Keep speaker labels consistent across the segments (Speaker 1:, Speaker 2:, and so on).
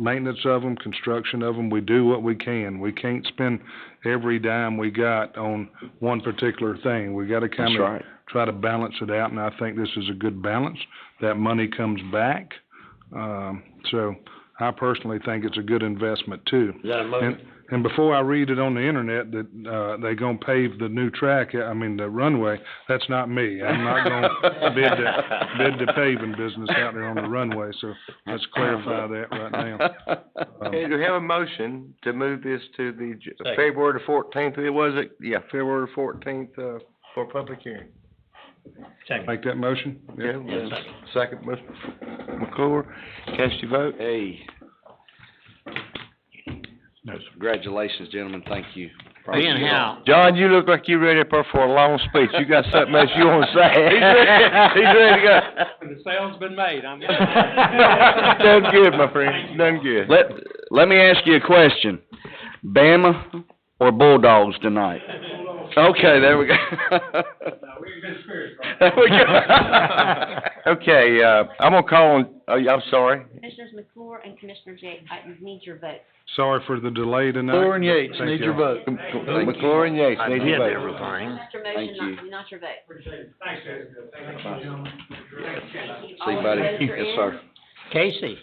Speaker 1: maintenance of them, construction of them, we do what we can. We can't spend every dime we got on one particular thing. We gotta
Speaker 2: That's
Speaker 1: kind of
Speaker 2: right.
Speaker 1: try to balance it out, and I think this is a good balance. That money comes back, um, so I personally think it's a good investment too.
Speaker 3: Is that a
Speaker 1: And,
Speaker 3: motion?
Speaker 1: and before I read it on the internet that, uh, they gonna pave the new track, I mean, the runway, that's not me. I'm not gonna bid the, bid the paving business out there on the runway, so let's clarify that right now.
Speaker 3: Um,
Speaker 4: Okay, do we have a motion to move this to the J-
Speaker 3: Second.
Speaker 4: February the fourteenth, it was it? Yeah, February the fourteenth, uh, for public hearing.
Speaker 1: Make that motion?
Speaker 4: Okay, well, second, Mr. McClure, cast your vote.
Speaker 2: Hey.
Speaker 1: No, sir.
Speaker 2: Congratulations, gentlemen, thank you.
Speaker 3: Being how,
Speaker 4: John, you look like you ready for for a long speech, you got something else you wanna say?
Speaker 2: He's ready- he's ready to go.
Speaker 5: The sale's been made, I'm.
Speaker 4: Done good, my friend, done good.
Speaker 2: Let, let me ask you a question. Bama or Bulldogs tonight? Okay, there we go. There we go.
Speaker 4: Okay, uh, I'm gonna call on, oh, yeah, I'm sorry.
Speaker 6: Commissioners McClure and Commissioner Jay, I need your vote.
Speaker 1: Sorry for the delay tonight.
Speaker 3: Thor and Yates,
Speaker 1: Thank
Speaker 3: need your
Speaker 1: y'all.
Speaker 3: vote.
Speaker 4: McClure and Yates,
Speaker 3: I
Speaker 4: need
Speaker 3: did
Speaker 4: your vote.
Speaker 3: everything.
Speaker 6: Mr.
Speaker 2: Thank
Speaker 6: Motion, not, not your vote.
Speaker 2: See,
Speaker 6: All
Speaker 2: buddy,
Speaker 6: opposed or
Speaker 2: yes,
Speaker 6: in?
Speaker 2: sir.
Speaker 5: Casey,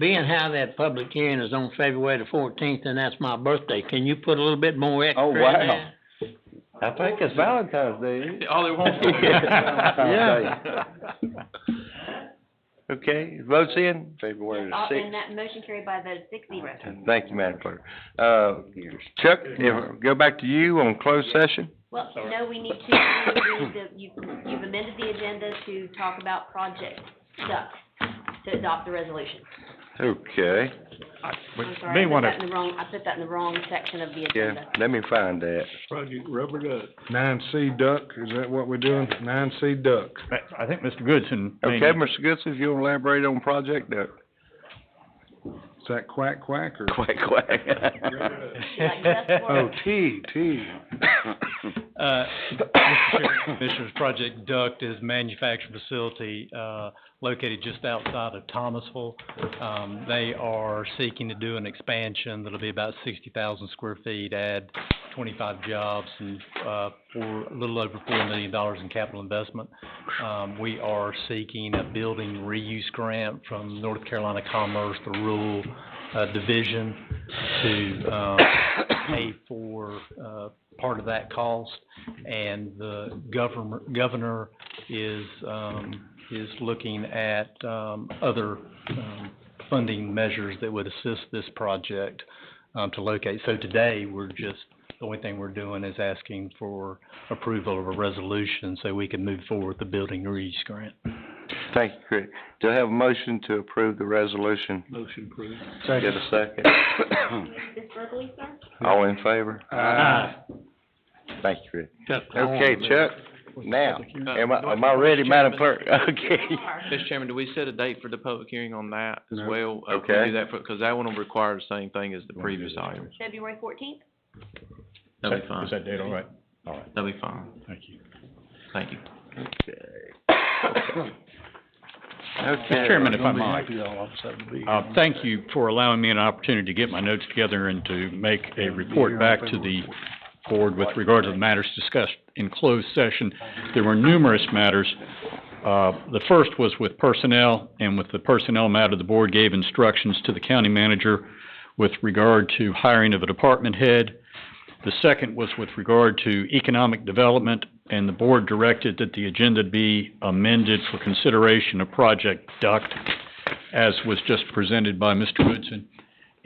Speaker 5: being how that public hearing is on February the fourteenth, and that's my birthday, can you put a little bit more extra
Speaker 2: Oh,
Speaker 5: in
Speaker 2: wow.
Speaker 5: there?
Speaker 4: I think it's Valentine's Day.
Speaker 3: All they want
Speaker 4: Yeah. Okay, votes in?
Speaker 2: February
Speaker 6: All-
Speaker 2: sixth.
Speaker 6: Uh, And that motion carried by a vote of six zero.
Speaker 4: Thank you, Madam Clerk. Uh, Chuck, if, go back to you on closed session.
Speaker 6: Well, no, we need to, we need to- you- you've amended the agenda to talk about project stuff, to adopt the resolution.
Speaker 4: Okay,
Speaker 6: I'm sorry, I put that in the wrong, I put that in the wrong section of the
Speaker 4: yeah,
Speaker 6: agenda.
Speaker 4: let me find that.
Speaker 3: Project Rubber Duck.
Speaker 1: Nine C duck, is that what we're doing? Nine C duck.
Speaker 7: I think Mr. Goodson. may
Speaker 4: Okay, Mr. Goodson, if you'll elaborate on Project Duck.
Speaker 1: Is that quack quack or?
Speaker 2: Quack, quack.
Speaker 6: You like just for-
Speaker 1: Oh, T, T.
Speaker 8: Uh, Mr. Chairman, Commissioners, Project Duct is a manufacturing facility, uh, located just outside of Thomasville. Um, they are seeking to do an expansion that'll be about sixty thousand square feet, add twenty-five jobs and, uh, for a little over four million dollars in capital investment. Um, we are seeking a building reuse grant from North Carolina Commerce, the Rural, uh, Division to, um, pay for, uh, part of that cost. And the governor, governor is, um, is looking at, um, other, um, funding measures that would assist this project, um, to locate. So today, we're just, the only thing we're doing is asking for approval of a resolution so we can move forward with the building reuse grant.
Speaker 4: Thank you, Chris. Do I have a motion to approve the resolution?
Speaker 3: Motion approved.
Speaker 4: Get a second.
Speaker 2: Oh.
Speaker 6: Ms. Burgley, sir?
Speaker 4: All in favor? Thank you, Chris. Okay, Chuck, now, am I, am I ready, Madam Clerk? Okay.
Speaker 9: Mr. Chairman, do we set a date for the public hearing on that as
Speaker 1: No.
Speaker 9: well? Uh, can we
Speaker 4: Okay.
Speaker 9: Do that for, because that one will require the same thing as the previous item.
Speaker 6: February fourteenth?
Speaker 9: That'll be fine.
Speaker 7: Is that date all right? All right,
Speaker 9: That'll be fine.
Speaker 7: thank you.
Speaker 9: Thank you.
Speaker 4: Okay.
Speaker 7: Chairman, if I might, uh, thank you for allowing me an opportunity to get my notes together and to make a report back to the board with regard to the matters discussed in closed session. There were numerous matters. Uh, the first was with personnel, and with the personnel matter, the board gave instructions to the county manager with regard to hiring of a department head. The second was with regard to economic development, and the board directed that the agenda be amended for consideration of Project Duct, as was just presented by Mr. Goodson.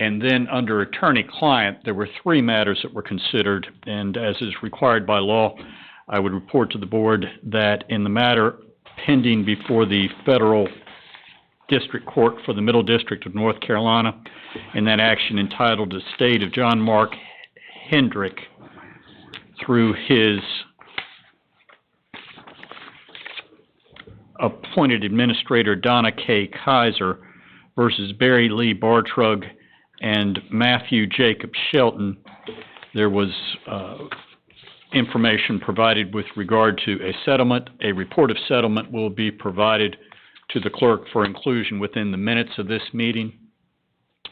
Speaker 7: And then, under attorney-client, there were three matters that were considered, and as is required by law, I would report to the board that in the matter pending before the federal district court for the Middle District of North Carolina, in that action entitled "The State of John Mark Hendrick through his appointed administrator Donna K. Kaiser versus Barry Lee Bartrug and Matthew Jacob Shelton. There was uh, information provided with regard to a settlement. A report of settlement will be provided to the clerk for inclusion within the minutes of this meeting.